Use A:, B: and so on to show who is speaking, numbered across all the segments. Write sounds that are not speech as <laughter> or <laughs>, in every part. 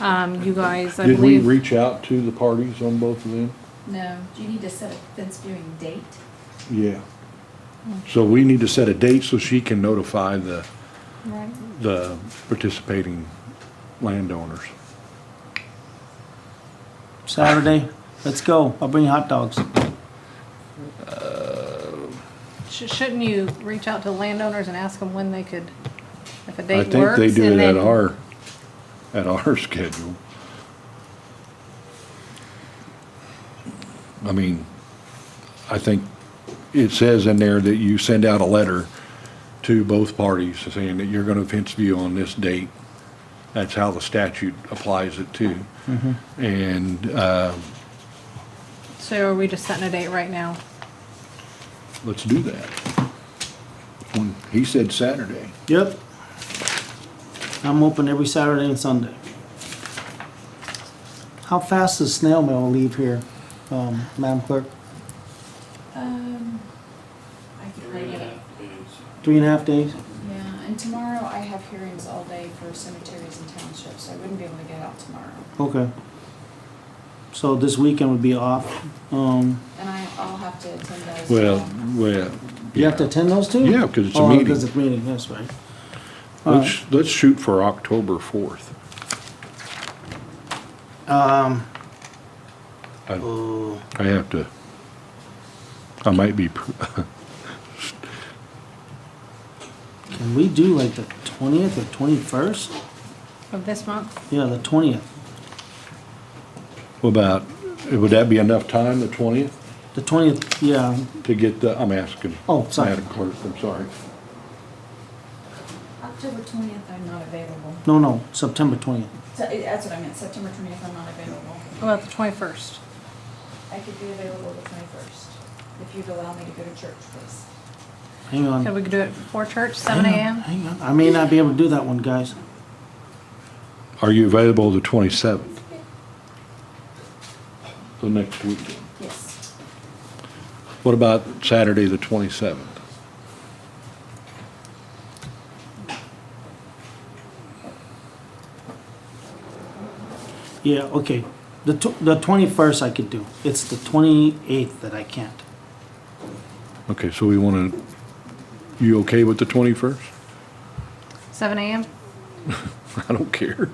A: Um, you guys, I
B: Did we
A: believe,
B: reach out to the parties on both of them?
C: No, do you need to set a fence viewing date?
B: Yeah. So we need to set a date so she can notify the,
C: Right.
B: the participating landowners.
D: Saturday, let's go. I'll bring you hot dogs.
A: sh- shouldn't you reach out to landowners and ask them when they could, if a
B: I
A: date
B: think
A: works?
B: they do
A: and
B: it at
A: then-
B: our, at our <laughs> schedule. I mean, I think it says in there that you send out a letter to both parties saying that you're gonna fence view on this date. That's how the statute applies it to. And, uh,
A: So are we just setting a date right now?
B: let's do that. When, he said Saturday.
D: Yep. I'm open every Saturday and Sunday. How fast does snail mail leave here, um, Madam Clerk?
C: Um, I could bring it up.
D: Three and a half days?
C: Yeah, and tomorrow I have hearings all day for cemeteries and townships, so I wouldn't be able to get out tomorrow.
D: Okay. So this weekend would be off. Um,
C: And I, I'll have to attend those. um,
B: Well, well.
D: you have to attend those two?
B: Yeah, 'cause it's a
D: Oh,
B: meeting.
D: 'cause it's a meeting, that's right.
B: Let's, let's shoot for October fourth.
D: Um,
B: I
D: oh,
B: I have to, I might be, pr- <laughs>
D: can we do like the twentieth or twenty-first?
A: Of this month?
D: Yeah, the twentieth.
B: what about, would that be enough time, the twentieth,
D: The twentieth, yeah,
B: to get the, I'm asking.
D: Oh, sorry.
B: Madam Clerk, I'm sorry.
C: October twentieth, I'm not available.
D: no, no, September twentieth.
C: So, eh, that's what I meant, September twentieth, I'm not available.
A: What About the twenty-first?
C: I could be available the twenty-first, if you'd allow me to go to church, please.
D: Hang on.
A: Could we do it before church, seven AM?
D: Hang on, I may not be able to do that one, guys.
B: Are you available the twenty-seventh? The next weekend.
C: Yes.
B: What about Saturday, the twenty-seventh?
D: Yeah, okay. The tw- the twenty-first I could do. It's the twenty-eighth that I can't.
B: Okay, so we wanna, you okay with the twenty-first?
A: Seven AM?
B: <laughs> I don't care.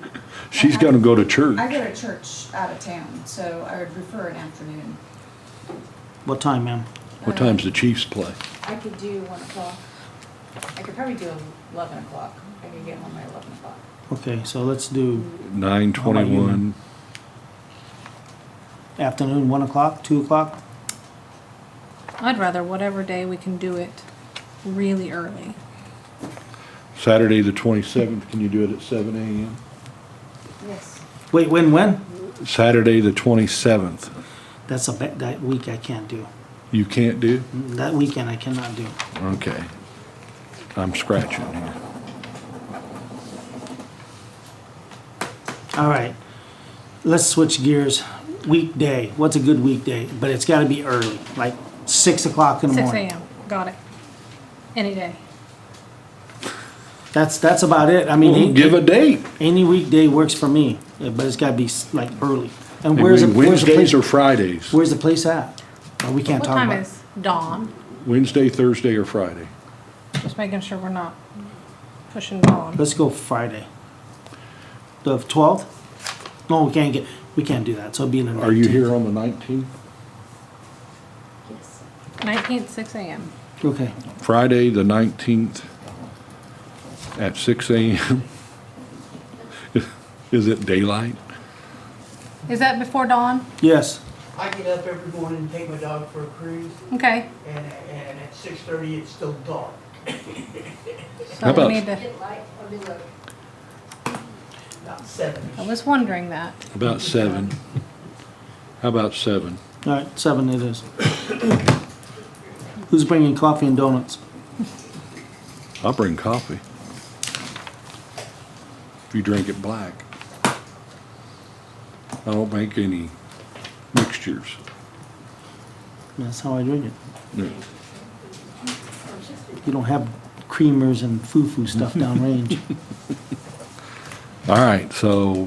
B: She's gonna go to church.
C: I go to church out of town, so I would prefer an afternoon.
D: What time, ma'am?
B: What time's the Chiefs play?
C: I could do one o'clock. I could probably do eleven o'clock. I could get home by eleven o'clock.
D: Okay, so let's do
B: Nine twenty-one.
D: afternoon, one o'clock, two o'clock?
A: I'd rather whatever day we can do it really early.
B: Saturday, the twenty-seventh, can you do it at seven AM?
C: Yes.
D: Wait, when, when?
B: Saturday, the twenty-seventh,
D: That's a, ba- that week I can't do. Mm,
B: you can't do?
D: That weekend I cannot do.
B: Okay. I'm scratching here.
D: All right, let's switch gears. Weekday, what's a good weekday? But it's gotta be early, like six o'clock in the
A: Six
D: morning.
A: AM, got it. Any day.
D: That's, that's about it. I mean,
B: Well,
D: ain't-
B: give a date.
D: Any weekday works for me, yeah, but it's gotta be s- like early. And where's the, where's the
B: Wednesdays
D: place?
B: or Fridays?
D: Where's the place at? Uh, We can't
A: What
D: talk
A: time
D: about.
A: is dawn?
B: Wednesday, Thursday, or Friday?
A: Just making sure we're not pushing dawn.
D: Let's go Friday. The twelfth? No, we can't get, we can't do that, so it'll be in the
B: Are you
D: 19th.
B: here on the nineteenth?
C: Yes.
A: Nineteenth, six AM.
D: Okay,
B: Friday, the nineteenth, at six AM? <laughs> Is it daylight?
A: Is that before dawn?
D: yes,
E: I get up every morning and take my dog for a cruise,
A: Okay.
E: and, and at six thirty, it's still dark.
A: So
B: about-
A: we need to,
E: Not seven.
A: I was wondering that.
B: About seven. How about seven?
D: all right, seven it is. Who's bringing coffee and donuts?
B: I'll bring coffee. If you drink it black. I don't make any mixtures.
D: That's how I drink it.
B: No.
D: You don't have creamers and foo-foo stuff downrange.
B: All right, so